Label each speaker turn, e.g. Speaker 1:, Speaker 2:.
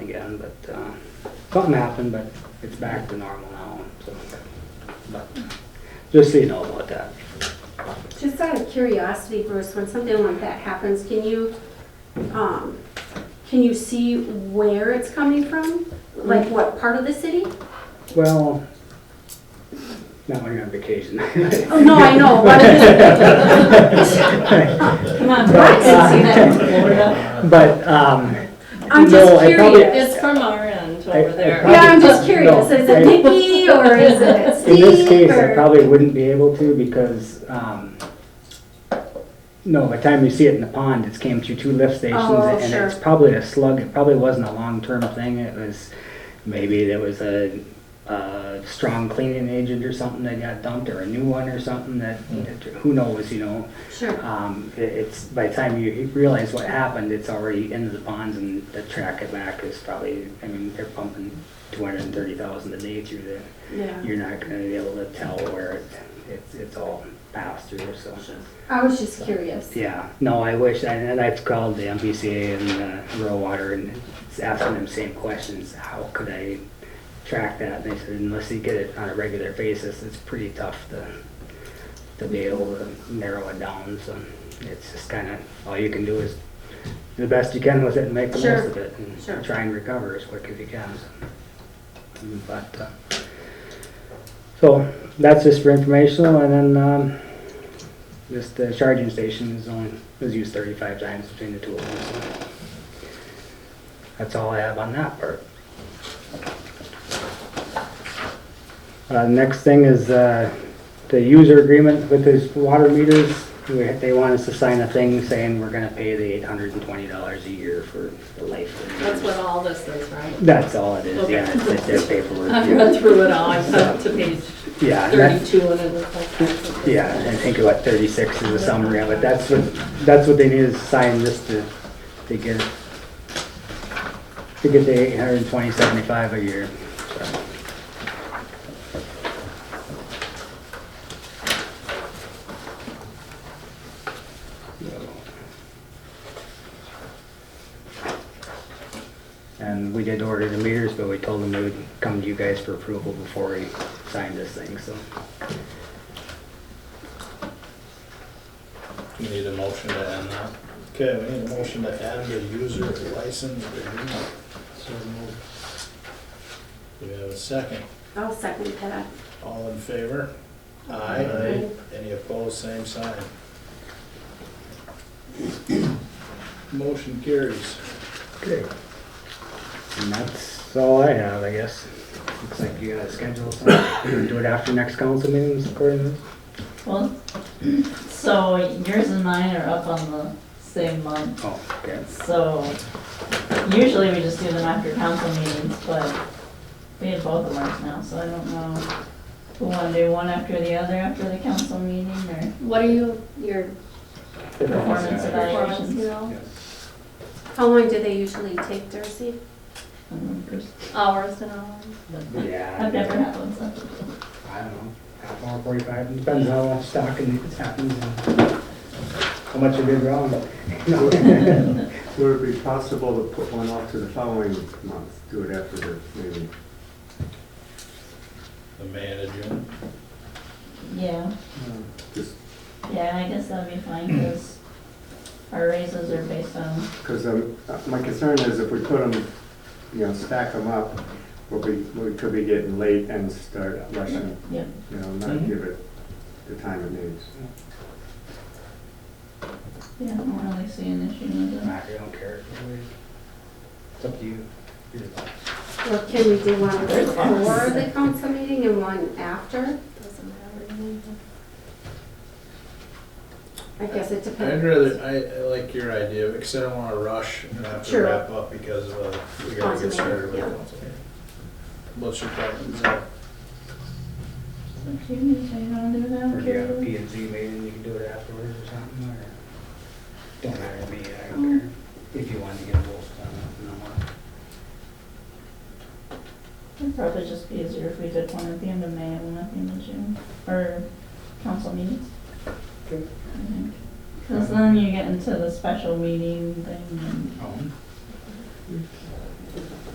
Speaker 1: again, but, uh, something happened, but it's back to normal now, so. But, just so you know about that.
Speaker 2: Just out of curiosity, Bruce, when something like that happens, can you, um, can you see where it's coming from? Like what part of the city?
Speaker 1: Well, not when you're on vacation.
Speaker 2: Oh, no, I know. what I mean. Come on, I can see that.
Speaker 1: But, um, No,
Speaker 2: I'm just
Speaker 1: I probably-
Speaker 2: curious.
Speaker 3: It's from our end
Speaker 1: I- I
Speaker 3: over there.
Speaker 1: probably-
Speaker 2: Yeah, I'm just
Speaker 1: No,
Speaker 2: curious. Is
Speaker 1: I-
Speaker 2: it Nikki or is it
Speaker 1: In this
Speaker 2: Steve
Speaker 1: case, I
Speaker 2: or?
Speaker 1: probably wouldn't be able to because, um, no, by the time you see it in the pond, it's came through two lift stations.
Speaker 2: Oh,
Speaker 1: And it's
Speaker 2: sure.
Speaker 1: probably a slug, it probably wasn't a long-term thing, it was, maybe there was a, a strong cleaning agent or something that got dumped or a new one or something that, who knows, you know?
Speaker 2: Sure.
Speaker 1: Um, it- it's, by the time you realize what happened, it's already into the ponds and the track it back is probably, I mean, they're pumping two hundred and thirty thousand a day through there
Speaker 2: Yeah.
Speaker 1: you're not gonna be able to tell where it- it's, it's all passed through, so.
Speaker 2: I was just curious.
Speaker 1: Yeah, no, I wish, and and I've called the MPCA and uh, rural water and it's asking them same questions, how could I track that? And they said unless you get it on a regular basis, it's pretty tough to, to be able to narrow it down, so it's just kinda, all you can do is do the best you can with it and make the
Speaker 2: Sure,
Speaker 1: most of it. and
Speaker 2: sure.
Speaker 1: Try and recover as quick as you can, so. But, uh, so, that's just for informational, and then, um, this, the charging station is only, was used thirty-five times between the two of them, so. That's all I have on that part. Uh, next thing is, uh, the user agreement with his water meters. We- They want us to sign a thing saying we're gonna pay the eight hundred and twenty dollars a year for the life. of the
Speaker 3: That's
Speaker 1: meters.
Speaker 3: what all this is, right?
Speaker 1: That's all it is,
Speaker 3: Okay.
Speaker 1: yeah, it's just their paperwork.
Speaker 3: I
Speaker 1: yeah.
Speaker 3: went through it all, I went up to page
Speaker 1: Yeah, and that-
Speaker 3: thirty-two and it looked like that.
Speaker 1: Yeah, I think about thirty-six is a summary of it, that's what, that's what they need is sign just to, to get, to get the eight hundred and twenty seventy-five a year. so. And we did order the meters, but we told them we would come to you guys for approval before we signed this thing, so.
Speaker 4: You need a motion to end that.
Speaker 5: Okay, we need a motion to add the user license agreement. Do we have a second?
Speaker 2: I'll second that.
Speaker 5: All in favor? Aye. Any opposed, same sign. Motion carries.
Speaker 1: Okay. And that's all I have, I guess. Looks like you gotta schedule something, do it after next council meetings, according to this?
Speaker 3: Well, so yours and mine are up on the same month,
Speaker 1: Oh, okay.
Speaker 3: so usually we just do them after council meetings, but we had both of ours now, so I don't know. We wanna do one after the other after the council meeting or
Speaker 6: What are you, your
Speaker 3: performance
Speaker 6: performance,
Speaker 3: evaluations?
Speaker 6: you know,
Speaker 2: How long do they usually take, Darcy?
Speaker 3: I don't know, Bruce.
Speaker 6: hours and hours?
Speaker 1: Yeah.
Speaker 3: I've never had one, so.
Speaker 1: I don't know, half hour, forty-five, depends how much stocking happens and how much you did wrong.
Speaker 7: Would it be possible to put one off to the following month, do it after the meeting?
Speaker 4: The manager.
Speaker 3: Yeah.
Speaker 7: Just
Speaker 3: Yeah, I guess that'd be fine,
Speaker 1: Hmm.
Speaker 3: because our raises are based on,
Speaker 7: because uh, my concern is if we put them, you know, stack them up, we'll be, we could be getting late and start rushing,
Speaker 3: yep,
Speaker 7: you know, not give it the time it needs.
Speaker 3: yeah, I don't really see an issue with it.
Speaker 1: I don't care. It's up to you. Your thoughts.
Speaker 2: Or can we do one
Speaker 3: There's
Speaker 2: before
Speaker 3: lots.
Speaker 2: the council meeting and one after?
Speaker 6: Doesn't matter to me.
Speaker 2: I guess it depends.
Speaker 5: I'd rather, I, I like your idea, because I don't wanna rush and have to
Speaker 2: Sure.
Speaker 5: wrap up because of, uh, we gotta
Speaker 2: Council
Speaker 5: get started with
Speaker 2: meeting, yeah.
Speaker 5: council meeting. What's your preference? Zach?
Speaker 3: So if you need to, you wanna do that,
Speaker 1: Or if you have a
Speaker 3: okay?
Speaker 1: P and Z meeting, you can do it afterwards or something, or, don't matter to me, I don't care, if you want to get both done,
Speaker 3: It'd probably just be easier if we did one at the end of May and one at the end of June, or council meetings.
Speaker 1: Okay.
Speaker 3: Because then you get into the special meeting thing, and
Speaker 1: no more.